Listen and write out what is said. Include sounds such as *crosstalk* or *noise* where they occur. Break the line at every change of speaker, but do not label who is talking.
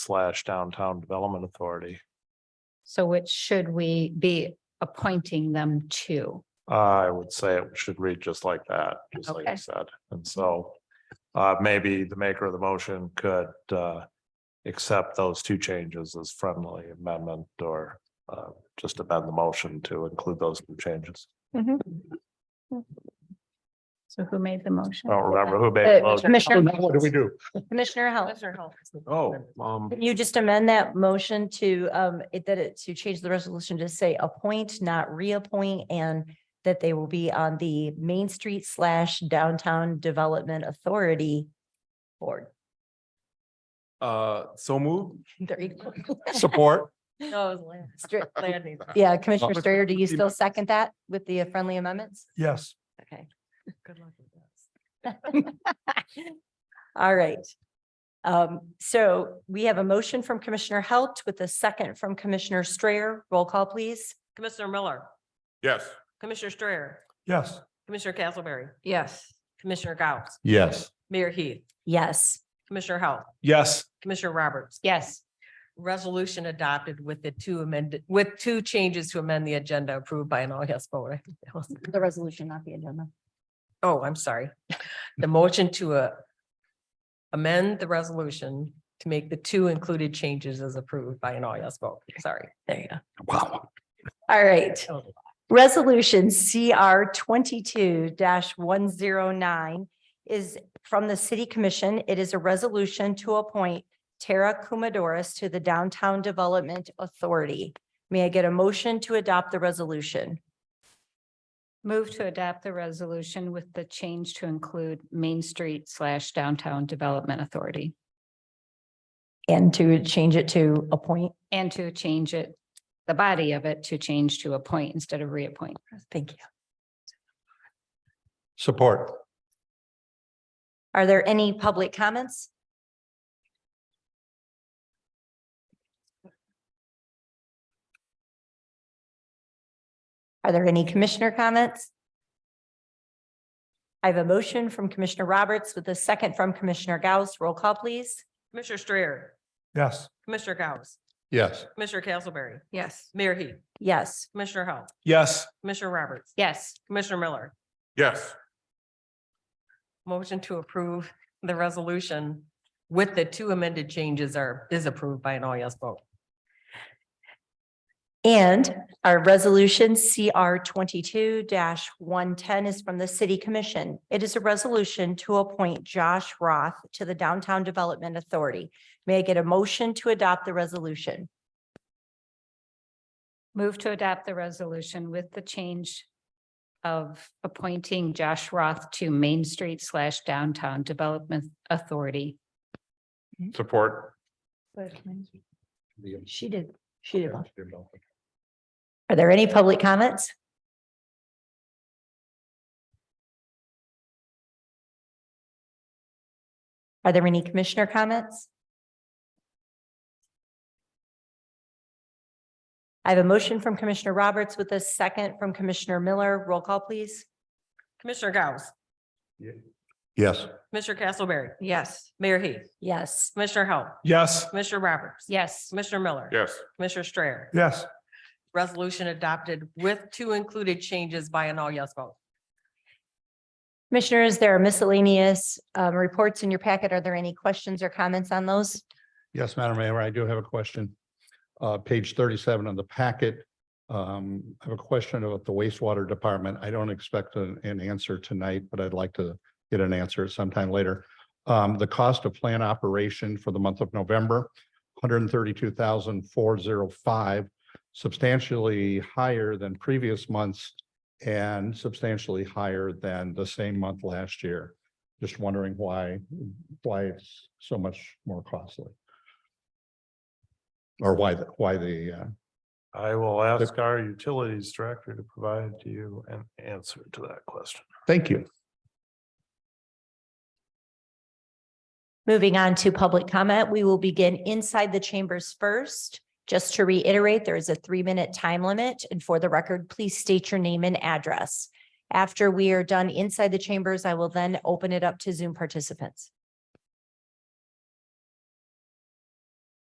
slash downtown development authority.
So which should we be appointing them to?
I would say it should read just like that, just like I
Okay.
said.
Mm-hmm.
And so uh, maybe the maker of the motion could uh, accept those two changes as friendly amendment or uh, just amend the motion to include those two changes.
So who made the motion?
I don't remember who made the
Uh,
motion.
Commissioner-
Now What do we do?
Commissioner Hell.
Oh, um,
Can you just amend that motion to, um, it, that it, to change the resolution to say appoint, not reappoint, and that they will be on the Main Street slash Downtown Development Authority Board. *laughs*
Uh, so move.
There you go. *laughs*
Support.
Stri- Yeah, Commissioner Strayer, do you still second that with the friendly amendments?
Yes.
Okay. Good luck with this. All right. Um, so we have a motion from Commissioner Halt with a second from Commissioner Strayer. Roll call, please.
Commissioner Miller,
Yes.
Commissioner Strayer,
Yes.
Commissioner Castleberry. Yes. Commissioner Gauss,
Yes.
Mayor Heath,
Yes.
Commissioner Howell,
Yes.
Commissioner Roberts.
Yes,
Resolution adopted with the two amended, with two changes to amend the agenda approved by an all yes vote. *laughs*
The resolution, not the agenda.
Oh, I'm sorry. The motion to uh, amend the resolution to make the two included changes as approved by an all yes vote. Sorry. There you
Wow.
All right.
go.
Resolution CR twenty-two one zero nine is from the City Commission. It is a resolution to appoint Tara Kumadoris to the Downtown Development Authority. May I get a motion to adopt the resolution?
move to adapt the resolution with the change to include Main Street slash Downtown Development Authority.
And to change it to appoint?
And to change it, the body of it to change to appoint instead of reappoint.
Thank you.
Support.
Are there any public comments? Are there any commissioner comments? I have a motion from Commissioner Roberts with a second from Commissioner Gauss. Roll call, please.
Commissioner Strayer,
Yes.
Commissioner Gauss,
Yes.
Commissioner Castleberry,
Yes.
Mayor Heath,
Yes.
Commissioner Howell,
Yes.
Commissioner Roberts,
Yes,
Commissioner Miller,
Yes.
Motion to approve the resolution with the two amended changes are, is approved by an all yes vote.
And our resolution CR twenty-two one-ten is from the city commission. It is a resolution to appoint Josh Roth to the Downtown Development Authority. May I get a motion to adopt the resolution?
move to adapt the resolution with the change of appointing Josh Roth to Main Street slash Downtown Development Authority.
Support.
She did, she did. Are there any public comments? Are there any commissioner comments? I have a motion from Commissioner Roberts with a second from Commissioner Miller. Roll call, please.
Commissioner Gauss,
Yes.
Commissioner Castleberry,
Yes.
Mayor Heath,
Yes.
Commissioner Howell,
Yes.
Commissioner Roberts.
Yes,
Commissioner Miller.
Yes.
Commissioner Strayer.
Yes.
Resolution adopted with two included changes by an all yes vote.
Commissioners, there are miscellaneous um, reports in your packet. Are there any questions or comments on those?
Yes, Madam Mayor, I do have a question. Uh, page thirty-seven on the packet. Um, I have a question about the wastewater department. I don't expect an, an answer tonight, but I'd like to get an answer sometime later. Um, the cost of plant operation for the month of November, 132,405, substantially higher than previous months and substantially higher than the same month last year. Just wondering why, why it's so much more costly. Or why, the why the, uh,
I will ask our utilities director to provide you an answer to that question.
thank you.
Moving on to public comment, we will begin inside the chambers first. Just to reiterate, there is a three-minute time limit, and for the record, please state your name and address. After we are done inside the chambers, I will then open it up to Zoom participants.